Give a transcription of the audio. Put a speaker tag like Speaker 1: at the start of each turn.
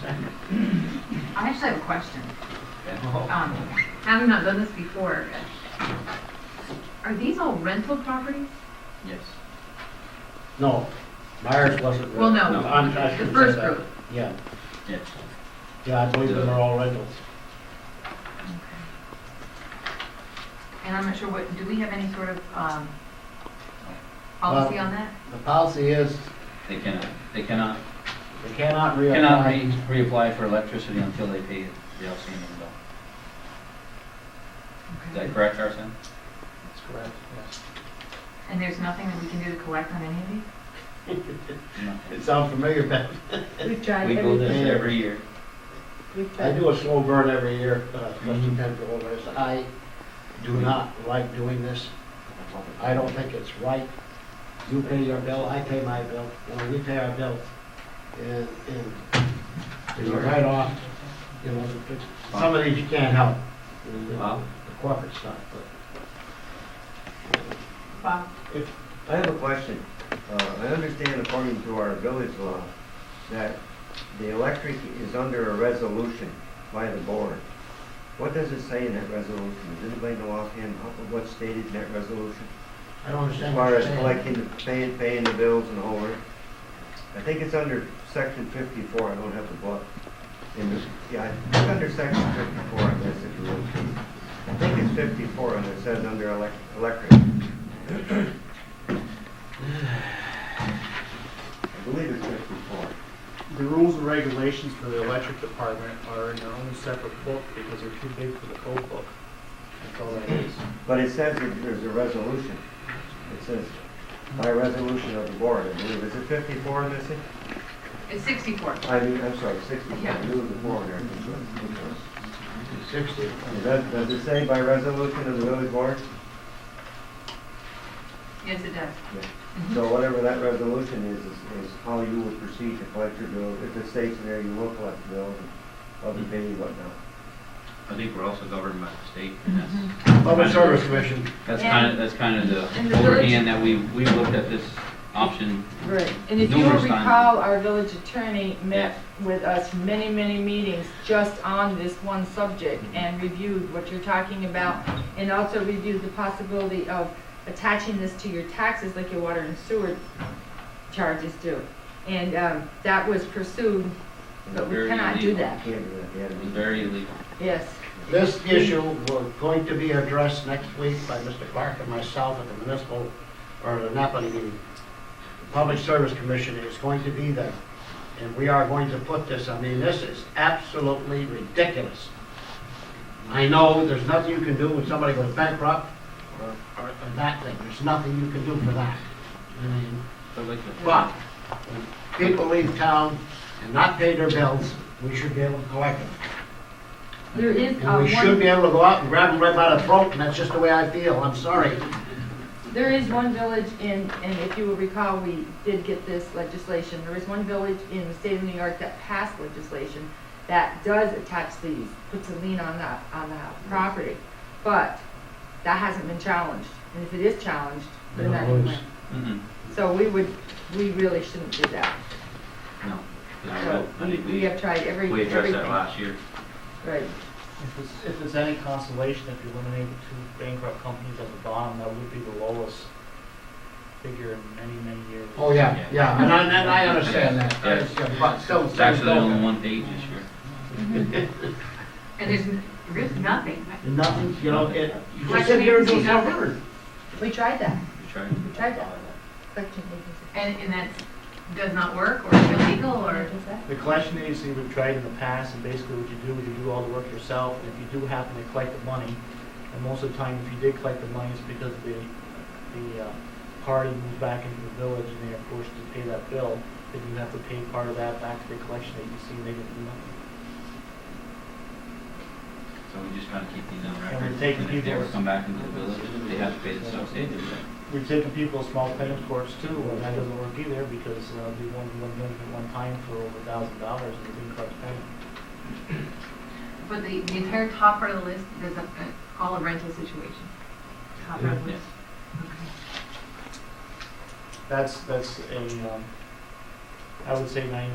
Speaker 1: second.
Speaker 2: I actually have a question.
Speaker 1: Yeah.
Speaker 2: Um, having not done this before, are these all rental properties?
Speaker 1: Yes.
Speaker 3: No, Myers wasn't.
Speaker 2: Well, no.
Speaker 3: rental. I'm- I
Speaker 2: The
Speaker 3: shouldn't
Speaker 2: first
Speaker 3: say that.
Speaker 2: group.
Speaker 3: Yeah,
Speaker 1: Yes.
Speaker 3: yeah, I believe them are all rentals.
Speaker 2: And I'm not sure what, do we have any sort of, um, policy on that?
Speaker 3: The policy is
Speaker 1: They cannot, they cannot,
Speaker 3: they cannot
Speaker 1: cannot
Speaker 3: reapply.
Speaker 1: re- reapply for electricity until they pay the outstanding bill. Is that correct, Arson?
Speaker 3: That's correct, yes.
Speaker 2: And there's nothing that we can do to collect on any of these?
Speaker 1: No.
Speaker 3: It sounds familiar, but
Speaker 4: We tried
Speaker 1: We go
Speaker 4: everything.
Speaker 1: this every year.
Speaker 4: We
Speaker 3: I
Speaker 4: tried.
Speaker 3: do a slow burn every year, uh, trustee
Speaker 1: Mhm.
Speaker 3: Penfield, whereas I do not like doing this. I don't think it's right. You pay your bill, I pay my bill, you know, we pay our bills. And, and it's a write-off, you know, the- the- some of these you can't help. you know,
Speaker 1: Wow.
Speaker 3: The corporate stuff, but
Speaker 2: Bob?
Speaker 5: I have a question. Uh, I understand according to our village law that the electric is under a resolution by the board. What does it say in that resolution? Does anybody know offhand how- what's stated in that resolution?
Speaker 3: I don't
Speaker 5: As
Speaker 3: understand what
Speaker 5: far
Speaker 3: you're
Speaker 5: as
Speaker 3: saying.
Speaker 5: collecting, the paying, paying the bills and all that? I think it's under section fifty-four, I don't have the book. In the, yeah, it's under section fifty-four, I guess, if you will. I think it's fifty-four, and it says under elec- electric. I believe it's fifty-four.
Speaker 6: The rules and regulations for the electric department are in their own separate book because they're too big for the code book. That's all that is.
Speaker 5: But it says that there's a resolution. It says, by resolution of the board, I believe, is it fifty-four, Missy?
Speaker 2: It's sixty-four.
Speaker 5: I mean, I'm sorry, sixty-four,
Speaker 2: Yeah.
Speaker 5: I knew it was the board there. Okay.
Speaker 3: Sixty.
Speaker 5: Does, does it say by resolution of the village board?
Speaker 2: Yes, it does.
Speaker 5: So whatever that resolution is, is, is how you will proceed to collect your bills. If it states there, you will collect the bills, other pay you whatnot.
Speaker 1: I think we're also governed by the state, and
Speaker 4: Mm-hmm.
Speaker 1: that's,
Speaker 3: Public Service Commission.
Speaker 1: that's kind of, that's kind of
Speaker 4: And the
Speaker 1: the
Speaker 4: village-
Speaker 1: overhand that we, we looked at this option.
Speaker 4: Right, and if you will
Speaker 1: Numerous times.
Speaker 4: recall, our village attorney met with us many, many meetings just on this one subject
Speaker 1: Mm-hmm.
Speaker 4: and reviewed what you're talking about and also reviewed the possibility of attaching this to your taxes like your water and sewer charges do. And um, that was pursued, but we
Speaker 1: Very
Speaker 4: cannot do
Speaker 1: illegal.
Speaker 5: You
Speaker 4: that.
Speaker 5: can't do that, yeah.
Speaker 1: It was very illegal.
Speaker 4: Yes,
Speaker 3: This issue was going to be addressed next week by Mr. Clark and myself at the municipal, or the NAPA meeting. The Public Service Commission is going to be there, and we are going to put this, I mean, this is absolutely ridiculous. I know there's nothing you can do when somebody goes bankrupt, or, or that thing, there's nothing you can do for that. I mean, but when people leave town and not pay their bills, we should be able to collect them.
Speaker 4: there is uh,
Speaker 3: And we should
Speaker 4: one,
Speaker 3: be able to go out and grab them right by the throat, and that's just the way I feel, I'm sorry.
Speaker 4: there is one village in, and if you will recall, we did get this legislation. There is one village in the state of New York that passed legislation that does attach these, puts a lien on that, on that property. But that hasn't been challenged, and if it is challenged,
Speaker 3: They
Speaker 4: then
Speaker 3: don't
Speaker 4: that can
Speaker 3: lose.
Speaker 4: win.
Speaker 1: Mm-mm,
Speaker 4: So we would, we really shouldn't do that.
Speaker 1: no. No,
Speaker 4: So
Speaker 1: I
Speaker 4: we,
Speaker 1: think
Speaker 4: we
Speaker 1: we,
Speaker 4: have tried every,
Speaker 1: we addressed
Speaker 4: everything.
Speaker 1: that last year.
Speaker 4: Right,
Speaker 6: If it's, if it's any consolation, if you eliminate the two bankrupt companies at the bottom, that would be the lowest figure in many, many years.
Speaker 3: Oh, yeah, yeah, and I, and I understand that,
Speaker 1: Yeah.
Speaker 3: It's, uh, but still.
Speaker 1: It's actually only one page this year.
Speaker 2: And there's, n- there's nothing.
Speaker 3: Nothing, you know, it, you
Speaker 2: Like
Speaker 3: just sit here and
Speaker 2: we
Speaker 3: do
Speaker 2: see
Speaker 3: something.
Speaker 4: we tried that,
Speaker 1: We tried.
Speaker 4: we tried that. Collection agency.
Speaker 2: And, and that does not work or is illegal or?
Speaker 4: What is that?
Speaker 6: The collection agency we've tried in the past, and basically what you do is you do all the work yourself, and if you do happen to collect the money, and most of the time, if you did collect the money, it's because the, the uh, party moved back into the village and they are forced to pay that bill, then you have to pay part of that back to the collection agency, and they didn't do nothing.
Speaker 1: So we just gotta keep these on
Speaker 6: And
Speaker 1: record.
Speaker 6: we're taking
Speaker 1: And if they ever
Speaker 6: people's-
Speaker 1: come back into the village, they have to pay the subsidy.
Speaker 6: We've taken people small payment courts too, and that doesn't work either, because uh, we won one million at one time for over a thousand dollars, and we didn't collect the payment.
Speaker 2: But the, the entire top part of the list, there's a, all a rental situation. Top part of the list.
Speaker 6: That's, that's a, um, I would say ninety